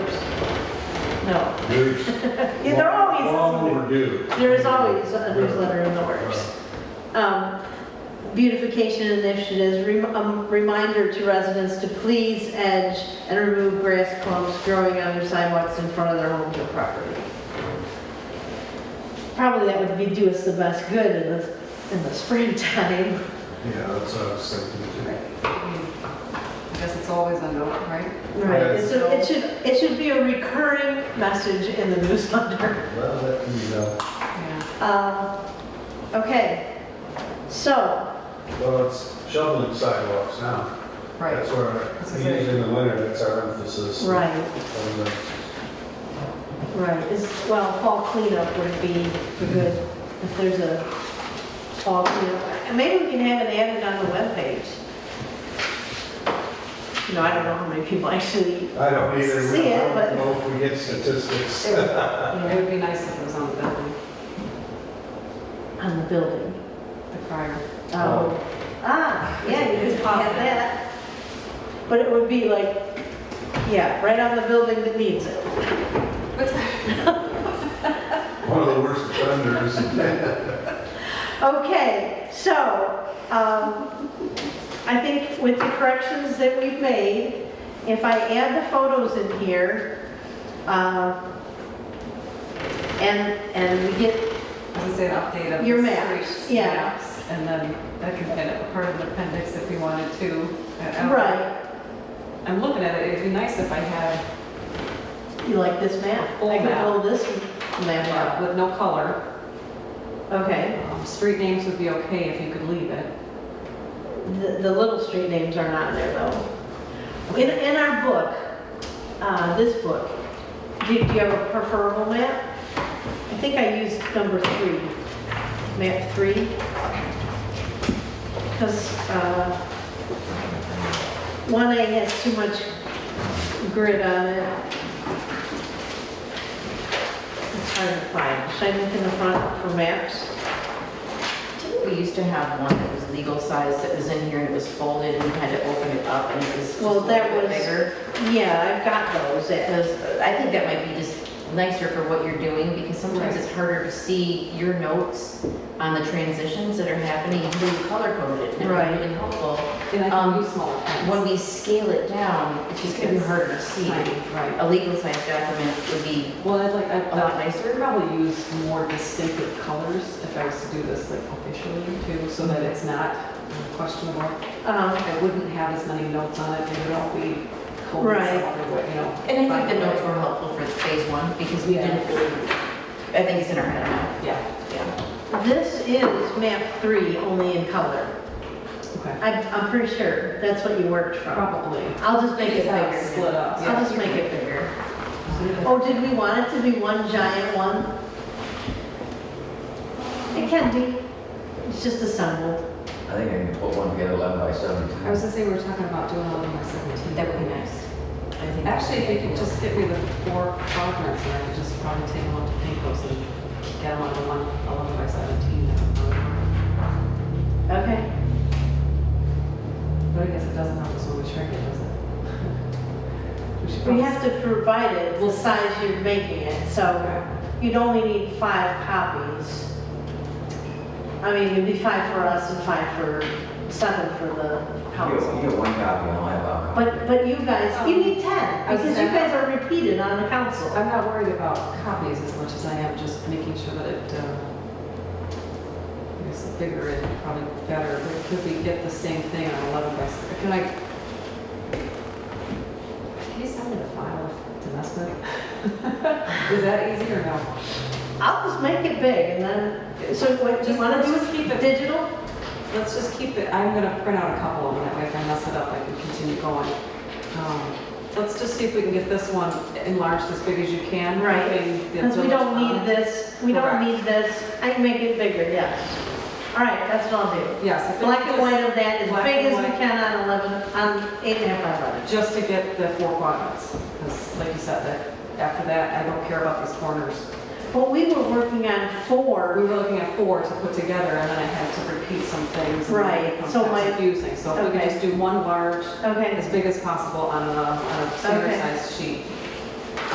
No, There's Yeah, they're always- Long overdue. there is always a newsletter in the works. Um, Beautification initiatives, rem- um, reminder to residents to please edge and remove grass clumps growing on their sidewalks in front of their homes or property. Probably that would be do us the best good in the, in the springtime. Yeah, that's what I was thinking too. I guess it's always a note, right? Right, Yes. and so it should, it should be a recurring message in the newsletter. Well, that, you know, Yeah. Um, Okay, so, well, it's shoveling sidewalks now. That's Right. where, That's the usually in the winter, that's our emphasis. uh, right, On the- right, is, well, fall cleanup would be a good, if there's a fall cleanup. And maybe we can have it added on the webpage. You know, I don't know how many people actually, I don't either. See it, I but- don't know if we get statistics. It would- It would be nice if it was on the building, on the building. the crier. Um, Ah, yeah, you could pop that. But it would be like, yeah, right on the building that needs it. What's that? One of the worst offenders. Okay, so, um, I think with the corrections that we've made, if I add the photos in here, uh, and, and we get, Does it say an update of? Your the maps, streets, yeah. maps, And then that can end up part of the appendix if we wanted to. I- I don't- right, I'm looking at it, it'd be nice if I had, you like this map? Full I can map. pull this map uh, out. with no color, Okay, um, street names would be okay if you could leave it. the, the little street names are not in there though. In, in our book, uh, this book, do do you have a preferable map? I think I used number three, map three. Because uh, one A has too much grid on it. It's hard to find. Should I look in the front for maps? Didn't we used to have one that was legal size that was in here and it was folded and we had to open it up and it was just a Well, little that bit was- bigger? Yeah, I've got those. It- Because I think that might be just nicer for what you're doing because sometimes Right. it's harder to see your notes on the transitions that are happening, and who color coded it. and Right. It's really helpful. And I Um, can use small appendix. When we scale it down, it's just gonna be It's harder to see. tiny, Right. A legal size document would be Well, I'd like, I'd a lot nicer. probably use more distinctive colors if I was to do this like officially too, so that it's not questionable. um, I wouldn't have as many notes on it, it would all be colored Right. some other way, you know. And I by think the notes way. were helpful for phase one because we Yeah. didn't, really- I think it's in our head now. Yeah, Yeah. This is map three, only in color. okay, I'm, I'm pretty sure that's what you worked from. probably. I'll just make it Just have it bigger. split up, yeah. I'll just make it bigger. Oh, did we want it to be one giant one? It can be. It's just assembled. I think I can put one together eleven by seventeen. I was gonna say, we were talking about doing eleven by seventeen. That would be nice. I think that Actually, if would be you could cool. just get me the four quadrants, and I could just probably take them up to paint those and get them on a one, eleven by seventeen. that would probably work. Okay. But I guess it doesn't help us when we shrink it, does it? We should We probably- have to provide it the size you're making it, so you'd only need five copies. I mean, it'd be five for us and five for, seven for the You council. get, you get one copy, I'll have a copy. But, but you guys, you need 10, Um, I was because you gonna- guys are repeated on the council. I'm not worried about copies as much as I am just making sure that it, uh, I guess the bigger is probably better, but could we get the same thing on 11 by, s- can I? Can you send me the file of domestic? Is that easy or no? I'll just make it big and then, so what, do you Just- want to do just is keep it- digital? Let's just keep it, I'm gonna print out a couple of them, that way if I mess it up, I can continue going. Um, Let's just see if we can get this one enlarged as big as you can. Right. keeping the uh, Because we village don't on. need this, we don't Correct. need this. I can make it bigger, yes. All right, that's what I'll do. Yes. if we Black could and just- white of that, as black big and as we white. can on 11, on eight and a half by 11. Just to get the four quadrants, because like you said, that after that, I don't care about these corners. But we were working on We four, were looking at four to put together, and then I had to repeat some things. and then it Right, so becomes my- Confusing, so if we could okay. just do one large, okay, as big as possible on a, on a standard Okay. size sheet.